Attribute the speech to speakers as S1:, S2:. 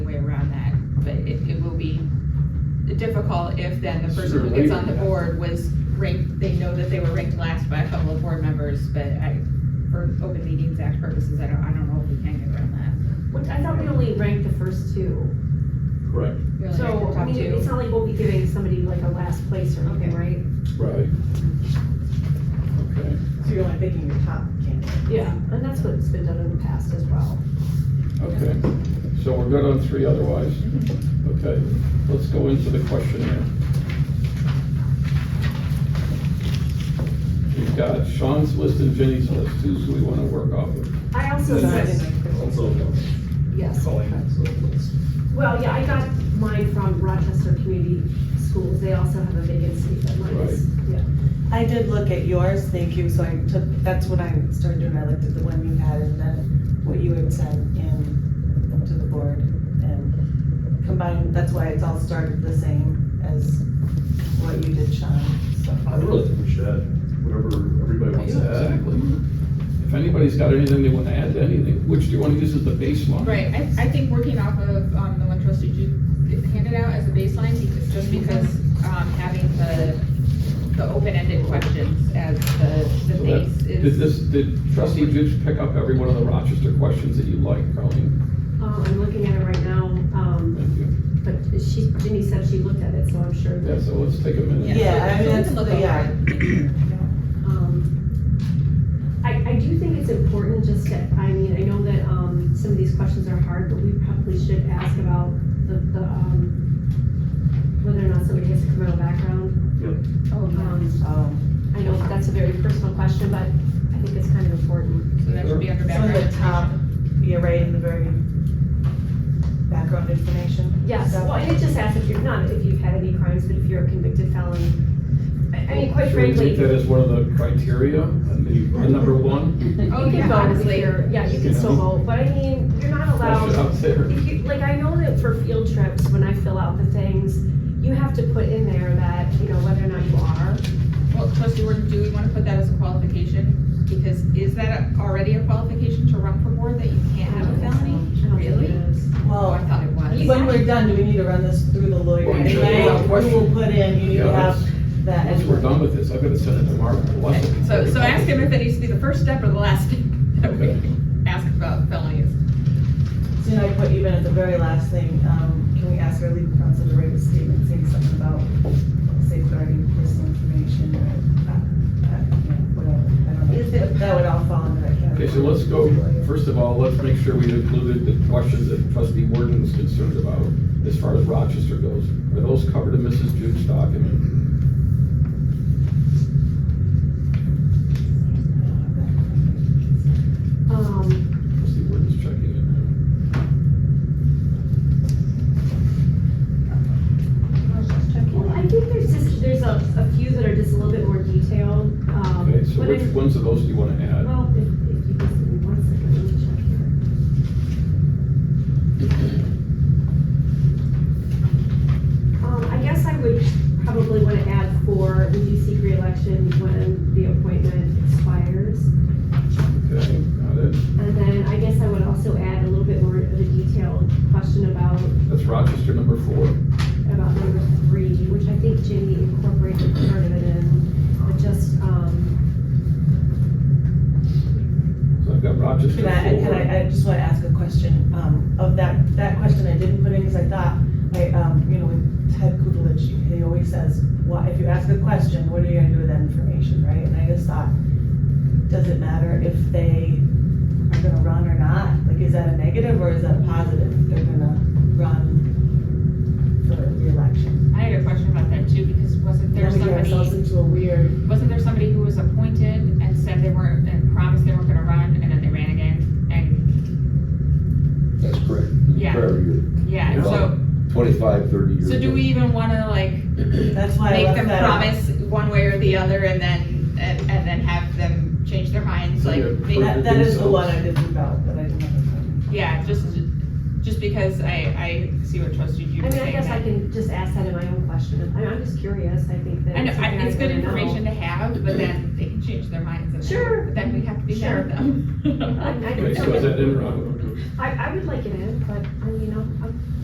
S1: difficult if then the person who
S2: Sure,
S1: gets on the
S2: maybe.
S1: board was ranked, they know that they were ranked last by a couple of board members, but I, for open meetings act purposes, I don't, I don't know if we can get around that.
S3: Which I thought we only ranked the first two.
S2: Correct,
S1: We only ranked
S3: So,
S1: the
S3: I
S1: top
S3: mean,
S1: two.
S3: it's not like we'll be giving somebody like a last place or anything, right?
S2: right. Okay,
S4: So you're only picking your top candidate.
S3: Yeah. And that's what's been done in the past as well.
S2: okay, so we're good on three otherwise? Okay, let's go into the questionnaire. We've got Sean's list and Jenny's list, who's who we wanna work off of?
S3: I also,
S5: Also,
S3: yes.
S5: calling it surplus.
S3: Well, yeah, I got mine from Rochester Community Schools. They also have a vacancy, but mine is, yeah.
S4: I did look at yours, thank you, so I took, that's what I started doing, I looked at the one you had and then what you had sent in up to the board and combined, that's why it's all started the same as what you did, Sean, so.
S5: I really think we should add whatever everybody wants to add.
S2: Exactly. If anybody's got anything they wanna add to anything, which do you wanna use as the baseline?
S1: Right, I, I think working off of, um, the one trustee you handed out as a baseline, because, just because, um, having the, the open-ended questions as the, the
S2: So that-
S1: base
S2: Did
S1: is.
S2: this, did trustee Gibbs pick up every one of the Rochester questions that you like, Colleen?
S3: Um, I'm looking at it right now, um,
S2: Thank you.
S3: but she, Jenny said she looked at it, so I'm sure
S2: Yeah,
S3: that,
S2: so let's take a minute.
S4: Yeah, I mean,
S1: so we
S4: that's-
S1: can look over
S4: yeah.
S1: it.
S3: um, I, I do think it's important just to, I mean, I know that, um, some of these questions are hard, but we probably should ask about the, the, um, whether or not somebody has a criminal background.
S1: Oh, no.
S3: Um,
S4: Um,
S3: I know that's a very personal question, but I think it's kind of important.
S1: So that should be under
S4: From
S1: background.
S4: the top,
S1: information.
S4: you're right in the very background information.
S3: Yes,
S4: stuff.
S3: well, and it just asks if you're, not if you've had any crimes, but if you're a convicted felon. I, I mean, quite
S2: Should we
S3: frankly.
S2: take that as one of the criteria, and the, the number one,
S3: You
S1: Oh, yeah,
S3: can vote if
S1: honestly.
S3: you're, yeah, you
S2: You
S3: can still
S2: know.
S3: vote, but I mean, you're not
S2: that's
S3: allowed,
S2: out there.
S3: if you, like, I know that for field trips, when I fill out the things, you have to put in there that, you know, whether or not you are.
S1: Well, trustee Warden, do we wanna put that as a qualification? Because is that already a qualification to run for board that you can't have a felony?
S3: I don't think it
S1: Really?
S3: is.
S1: Oh, I
S4: Well,
S1: thought it was.
S4: when we're done, do we need to run this through the lawyer?
S2: Well, you
S4: And
S2: should.
S4: then we will put in, you need
S2: Yeah,
S4: to
S2: let's-
S4: have that.
S2: Once we're done with this, I've gotta send it to Mark. We'll have to-
S1: So, so ask him if it needs to be the first step or the last step that we ask about felonies.
S4: So now I put even at the very last thing, um, can we ask our legal counsel to write a statement saying something about safeguarding personal information or, uh, uh, you know, whatever, I don't know. That would all fall under that
S2: Okay,
S4: category.
S2: so let's go, first of all, let's make sure we included the questions that trustee Warden was concerned about as far as Rochester goes. Are those covered in Mrs. Jude's document?
S3: Um,
S2: Trustee Warden's checking it.
S3: well, I think there's just, there's a, a few that are just a little bit more detailed, um.
S2: Okay, so
S3: but
S2: which
S3: I-
S2: ones of those do you want to add?
S3: Well, if, if you just give me one second, let me check here. Um, I guess I would probably want to add for, would you seek reelection when the appointment expires?
S2: Okay, got it.
S3: And then I guess I would also add a little bit more of a detailed question about,
S2: That's Rochester number four.
S3: about number three, which I think Jenny incorporated part of it in, but just, um,
S2: So I've got Rochester four.
S4: Can I, can I, I just wanna ask a question, um, of that, that question I didn't put in, cause I thought, I, um, you know, with Ted Kudelich, he always says, well, if you ask a question, what are you gonna do with that information, right? And I just thought, does it matter if they are gonna run or not? Like, is that a negative or is that a positive, if they're gonna run for reelection?
S1: I had a question about that too, because wasn't there
S4: Then we get ourselves
S1: somebody,
S4: into a weird,
S1: wasn't there somebody who was appointed and said they weren't, and promised they weren't gonna run, and then they ran again? And,
S6: That's correct.
S1: Yeah.
S6: Prior year,
S1: yeah, and so,
S6: twenty-five, thirty years.
S1: so do
S6: ago.
S1: we even wanna like
S4: that's why I
S1: make
S4: left
S1: them
S4: that out.
S1: promise one way or the other and then, and, and then have them change their minds, like,
S2: Yeah.
S1: maybe
S4: That, that is the one I didn't leave out, but I didn't have it.
S1: Yeah, just, just because I, I see what trustee
S3: I
S1: you
S3: mean,
S1: was
S3: I
S1: saying.
S3: guess I
S1: that-
S3: can just ask that in my own question. I- I'm just curious, I think that.
S1: I know, I,
S3: something
S1: it's good
S3: wanna know.
S1: information to have, but then they can change their minds and then-
S3: Sure.
S1: but then we have to be mad
S3: Sure.
S1: at them.
S3: I- I-
S2: Okay, so is that in Rochester?
S3: I, I would like it in, but, uh, you know, I'm